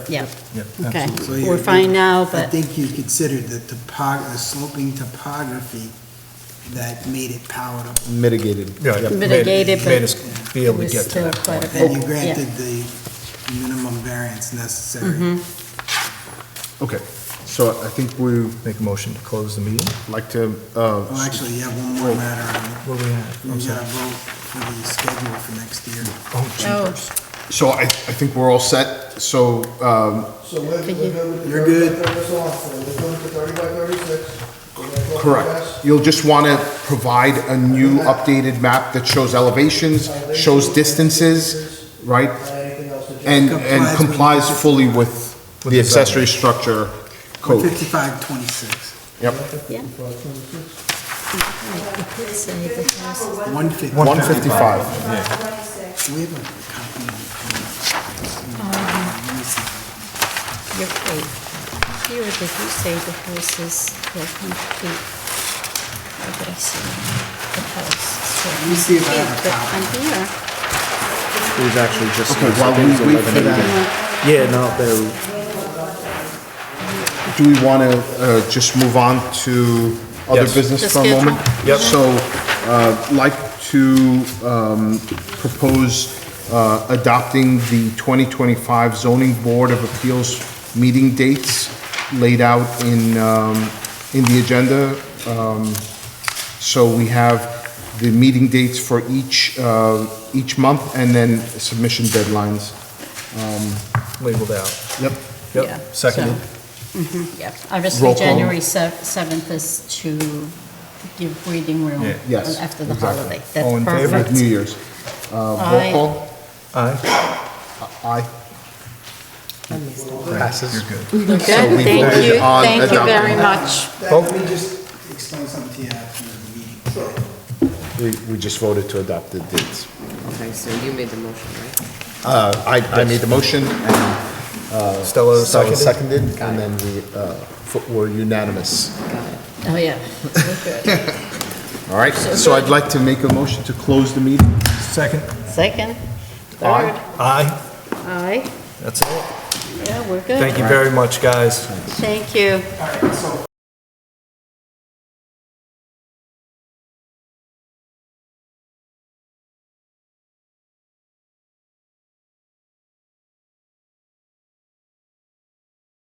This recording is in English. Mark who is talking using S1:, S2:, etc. S1: Yeah,
S2: Yep,
S1: okay.
S2: absolutely.
S3: So
S1: We're
S3: you-
S1: fine now,
S3: I
S1: but,
S3: think you considered the topog, the sloping topography that made it powered up.
S4: mitigated.
S2: Yeah, yeah.
S1: Mitigated,
S2: Made-
S1: but
S2: Made us be able to
S1: it was
S2: get to
S1: still
S2: that
S1: quite a
S2: point.
S3: And you
S1: Oh, Yeah. Mm-hmm.
S3: granted the minimum variance necessary.
S4: Okay, so I think we
S2: Make a motion to close the meeting?
S4: like to,
S3: Well,
S4: uh,
S3: actually, you have one more matter.
S2: What do we have?
S3: on-
S2: I'm
S3: You
S2: sorry.
S3: gotta vote for the schedule for next year.
S2: Oh,
S1: oh,
S2: jeepers.
S4: so I, I think we're all set, so, um,
S5: So we're, we're
S1: Thank you.
S5: good with the
S3: You're
S5: thirty by
S3: good.
S5: thirty, so on, so we're going to thirty by thirty-six. We're gonna go past-
S4: correct. You'll just want to provide a new updated map that shows elevations, shows distances, right?
S5: And anything else that you-
S4: And, and complies fully with the accessory structure code.
S3: Fifty-five twenty-six,
S4: Yep.
S1: yeah. Save the house.
S3: one fifty.
S4: One fifty-five.
S3: We have a copy. Let me see.
S1: You're right. Here, did you say the house is eleven feet? Where did I see it? the house? is
S3: Let me see if I
S1: 11
S3: have a
S1: feet, but I'm
S3: copy.
S1: here.
S4: We've actually just. Okay, while we wait for that,
S6: Yeah, no, they're,
S4: do we want to, uh, just move on to other
S2: Yes.
S1: The
S4: business for a moment?
S1: schedule.
S2: Yep.
S4: So, uh, like to, um, propose, uh, adopting the 2025 zoning board of appeals meeting dates laid out in, um, in the agenda. Um, So we have the meeting dates for each, uh, each month and then submission deadlines.
S2: Labeled out.
S4: Yep.
S1: Yeah,
S2: Yep, seconded.
S1: Yeah, obviously,
S4: Roll call.
S1: January sev- 7th is to give breathing room
S2: Yeah.
S4: Yes,
S1: after the
S4: exactly.
S1: holiday.
S2: All
S1: That's
S2: in favor?
S4: With New
S1: perfect.
S4: Year's. Uh,
S1: Aye.
S4: Roll call?
S2: Aye.
S4: Uh, Aye.
S2: Passes. You're good.
S1: You're Good,
S4: we
S1: thank
S4: voted
S1: you,
S4: on
S1: thank you
S4: adopting.
S1: very much.
S3: That- Let me just explain something to you after the meeting.
S4: We, we just voted to adopt the dates.
S7: Okay, so you made the motion, right?
S4: Uh, I, I made the motion,
S2: Stella
S4: and Stella
S2: seconded.
S4: seconded, and then we, uh, fo- were unanimous.
S1: Oh, yeah. We're good.
S4: All right, so I'd like to make a motion to close the meeting.
S2: Second.
S1: Second,
S4: Aye.
S1: third,
S2: Aye.
S1: aye.
S2: That's it.
S1: Yeah, we're good.
S2: Thank you very much, guys.
S1: Thank you.